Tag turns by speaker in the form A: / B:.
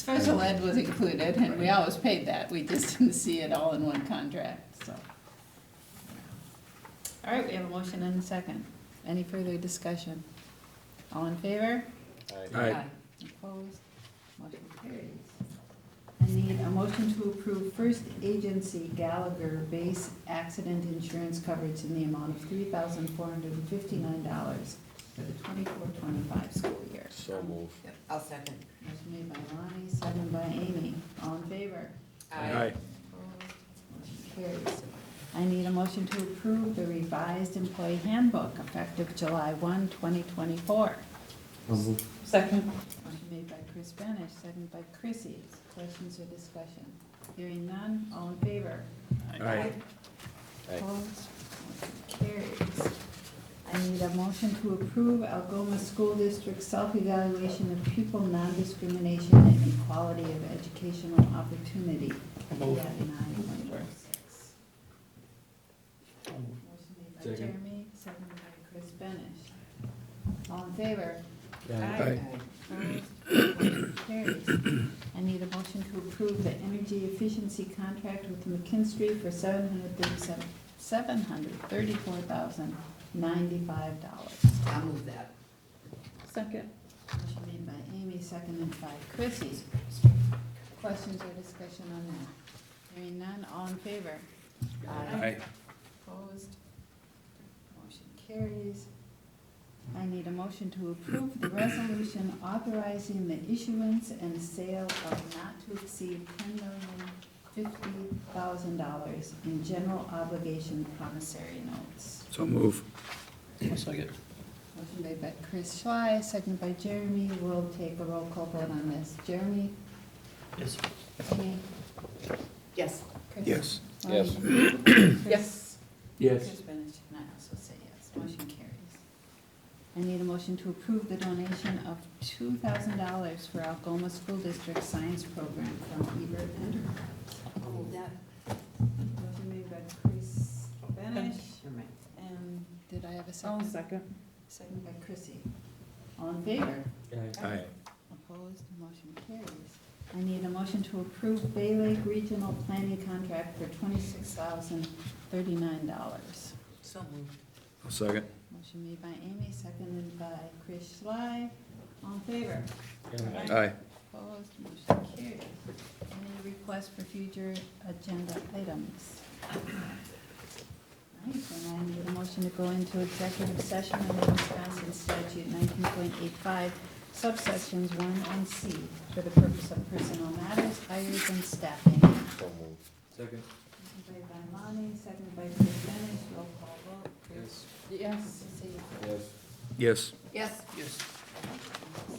A: Special ed was included, and we always paid that, we just didn't see it all in one contract, so. All right, we have a motion and a second. Any further discussion? All in favor?
B: Aye.
A: Opposed? Motion carries. I need a motion to approve First Agency Gallagher Base Accident Insurance Coverage in the amount of three thousand four hundred and fifty-nine dollars for the twenty-four, twenty-five school year.
C: So move.
D: I'll second.
A: Motion made by Lonnie, seconded by Amy. All in favor?
B: Aye.
A: Carries. I need a motion to approve the revised employee handbook effective July 1, 2024.
D: Second.
A: Motion made by Chris Benish, seconded by Chrissy. Questions or discussion? Hearing none, all in favor?
B: Aye.
C: Aye.
A: Opposed? Motion Carries. I need a motion to approve Algoma School District self-evaluation of pupil non-discrimination and equality of educational opportunity.
E: Move.
A: Yeah, nine, one, four, six. Motion made by
B: Second.
A: Jeremy, seconded by Chris Benish. All in favor?
B: Aye.
A: Motion Carries. I need a motion to approve the energy efficiency contract with McKinstry for seven hundred thirty-seven, seven hundred thirty-four thousand ninety-five dollars.
D: I'll move that.
A: Second. Motion made by Amy, seconded by Chrissy. Questions or discussion on that? Hearing none, all in favor?
B: Aye.
A: Opposed? Motion carries. I need a motion to approve the resolution authorizing the issuance and sale of not to exceed ten million fifty thousand dollars in general obligation promissory notes.
B: So move.
E: Second.
A: Motion made by Chris Schley, seconded by Jeremy. We'll take a roll call vote on this. Jeremy?
E: Yes.
A: Amy?
D: Yes.
A: Chris?
B: Yes.
A: Lonnie? Chris?
B: Yes.
A: Chris Benish, and I also say yes, motion carries. I need a motion to approve the donation of two thousand dollars for Algoma School District Science Program from Ebert Enterprise.
D: I'll move that.
A: Motion made by Chris Benish,
D: Never mind.
A: and did I have a 2nd second. Second by Chrissy. All in favor?
B: Aye.
A: Opposed, motion carries. I need a motion to approve Bay Lake Regional Planning Contract for twenty-six thousand thirty-nine dollars.
D: So moved.
B: I'll second.
A: Motion made by Amy, seconded by Chris Schley. All in favor?
B: Aye.
A: Opposed, motion carries. Any requests for future agenda items? All right, then I need a motion to go into executive session under Wisconsin statute nineteen point eight five, subsections one and C, for the purpose of personal matters, hires, and staffing. Motion
C: So move.
B: Second.
A: made by Lonnie, seconded by Chris Benish, roll call vote. Chris? Yes. Yes.
B: Yes.
D: Yes.
E: Yes.
A: Motion